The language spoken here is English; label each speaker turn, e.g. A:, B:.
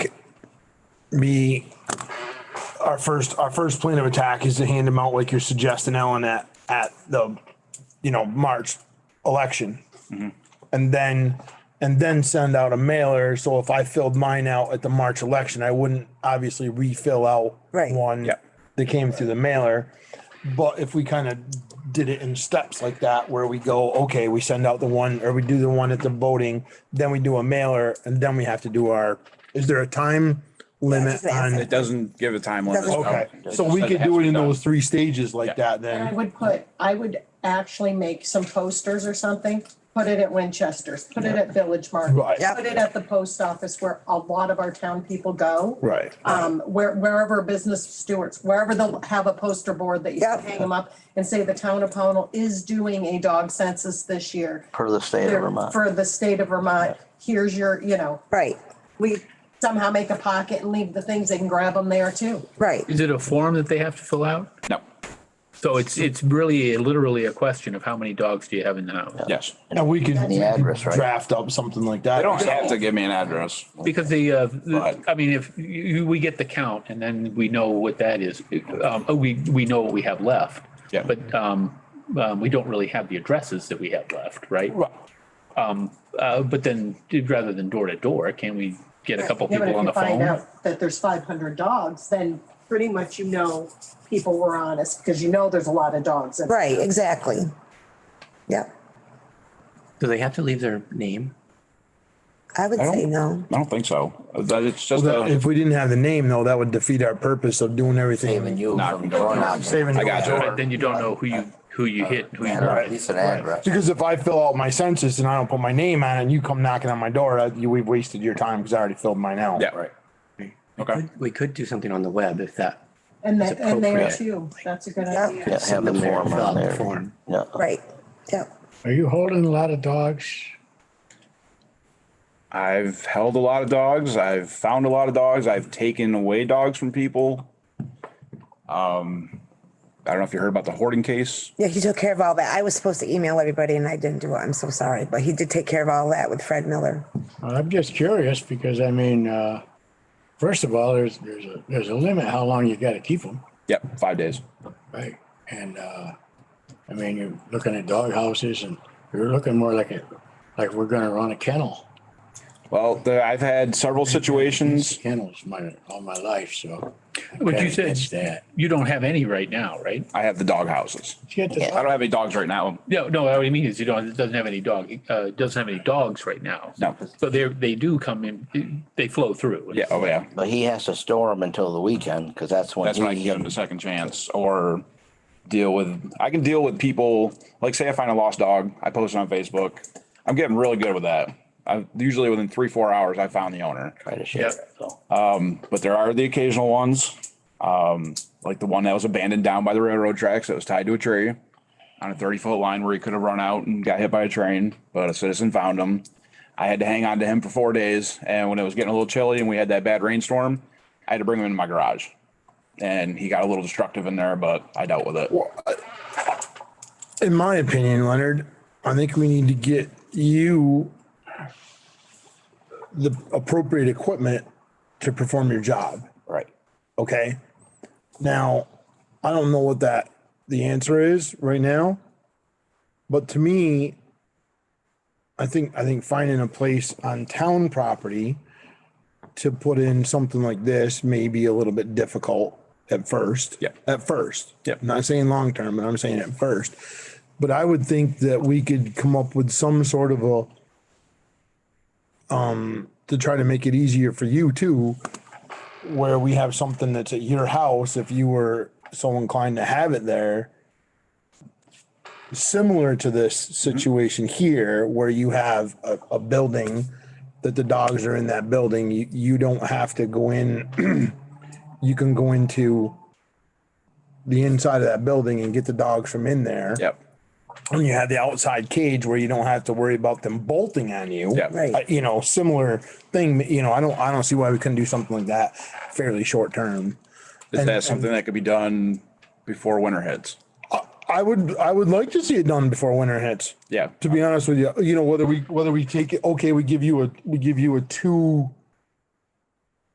A: be our first, our first plan of attack is to hand them out like you're suggesting, Ellen, at, at the, you know, March election. And then, and then send out a mailer. So if I filled mine out at the March election, I wouldn't obviously refill out
B: Right.
A: one
C: Yep.
A: that came through the mailer. But if we kind of did it in steps like that, where we go, okay, we send out the one, or we do the one at the voting, then we do a mailer, and then we have to do our, is there a time limit
B: That's the
A: on?
B: answer.
C: It doesn't give a time limit.
B: Doesn't-
A: Okay,
C: No.
A: so we
C: It
A: could
C: has to
A: do it
C: be
A: in
C: done.
A: those three stages like
C: Yeah.
A: that
D: I
A: then.
D: would put, I would actually make some posters or something, put it at Winchester's, put it at Village Market.
A: Right.
B: Yeah.
D: Put it at the post office where a lot of our town people go.
A: Right.
D: Um, where, wherever business stewards, wherever they'll have a poster board that you
B: Yeah.
D: can hang them up and say the town of Pownell is doing a dog census this year.
E: per the state of Vermont.
D: For the state of Vermont, here's your, you know,
B: Right, we,
D: somehow make a pocket and leave the things, they can grab them there too.
B: right,
F: Is it a form that they have to fill out?
C: No,
F: So it's, it's really literally a question of how many dogs do you have in the house?
C: yes.
A: And we could we could
E: address, right?
A: draft up something like that.
C: They don't have to give me an address.
F: Because the, uh, the-
C: Right.
F: I mean, if you- you, we get the count and then we know what that is, um, we, we know what we have left.
C: Yeah.
F: But, um, um, we don't really have the addresses that we have left, right?
A: Right.
F: Uh, but then rather than door to door, can we get a couple
D: Yeah, but if
F: people on
D: you
F: the
D: Find
F: phone?
D: out that there's five hundred dogs, then pretty much you know people were honest, because you know there's a lot of dogs. in-
B: right, exactly. Yeah,
G: Do they have to leave their name?
B: I would
C: I
B: say
C: don't,
B: no.
C: I don't think so. That it's just
A: Well, that-
C: a,
A: If we didn't have the name though, that would defeat our purpose of doing
G: Saving
A: everything.
G: you
C: Not
G: from
C: from going
G: going
C: out.
G: out.
A: Saving.
C: I got
F: But Then you don't know who you, who you hit, who you.
G: And at least an address.
A: Because if I fill out my census and I don't put my name on it and you come knocking on my door, uh, you, we've wasted your time because I already filled mine out.
C: yeah, right. Okay,
G: Could- We could do something on the web if that.
D: And that, and there
G: appropriate.
D: too, that's a good
B: Yeah.
D: idea.
E: Yeah, have
G: send
E: the
G: them there,
E: form
G: fill out
E: on
G: the
E: there.
G: form.
E: Yeah.
B: Right, yeah,
H: Are you holding a lot of dogs?
C: I've held a lot of dogs. I've found a lot of dogs. I've taken away dogs from people. Um, I don't know if you heard about the hoarding case.
B: yeah, he took care of all that. I was supposed to email everybody and I didn't do it, I'm so sorry, but he did take care of all that with Fred Miller.
H: I'm just curious because I mean, uh, first of all, there's, there's a, there's a limit how long you gotta keep them,
C: Yep, five days.
H: right? And, uh, I mean, you're looking at dog houses and you're looking more like a, like we're gonna run a kennel.
C: Well, the, I've had several situations.
H: Kennels my, all my life, so. I'm
F: But
H: kinda
F: you said,
H: against That.
F: you don't have any right now, right?
C: I have the dog houses.
H: You got the
C: I
H: dog-
C: don't have any dogs right now.
F: No, no, what I mean is you don't, it doesn't have any dog, uh, it doesn't have any dogs right now.
C: No.
F: So they're, they do come in, they flow through.
C: Yeah, oh yeah.
E: But he has to store them until the weekend because that's when
C: That's when I can
E: he,
C: give them a second chance or deal with, I can deal with people, like say I find a lost dog, I post it on Facebook. I'm getting really good with that. I usually within three, four hours, I found the owner,
E: try to share
F: Yeah.
E: it. So
C: but there are the occasional ones. Um, like the one that was abandoned down by the railroad tracks that was tied to a tree on a thirty foot line where he could have run out and got hit by a train, but a citizen found him. I had to hang on to him for four days. And when it was getting a little chilly and we had that bad rainstorm, I had to bring him into my garage. And he got a little destructive in there, but I dealt with it.
A: In my opinion, Leonard, I think we need to get you the appropriate equipment to perform your job.
E: right.
A: Okay. Now, I don't know what that the answer is right now, but to me, I think I think finding a place on town property to put in something like this may be a little bit difficult at first.
C: Yeah.
A: At first.
C: Yeah.
A: I'm Not saying long term, but I'm saying at first. But I would think that we could come up with some sort of a um, to try to make it easier for you too, where we have something that's at your house if you were so inclined to have it there. Similar to this situation here, where you have a, a building that the dogs are in that building, you, you don't have to go in. You can go into the inside of that building and get the dogs from in there.
C: Yep.
A: And you have the outside cage where you don't have to worry about them bolting on you.
C: Yeah.
B: Right.
A: Uh, You know, similar thing, you know, I don't, I don't see why we couldn't do something like that fairly short term.
C: Is
A: And-
C: that something that could be done before winter hits?
A: I would, I would like to see it done before winter hits.
C: Yeah.
A: To be honest with you, you know, whether we, whether we take it, okay, we give you a, we give you a two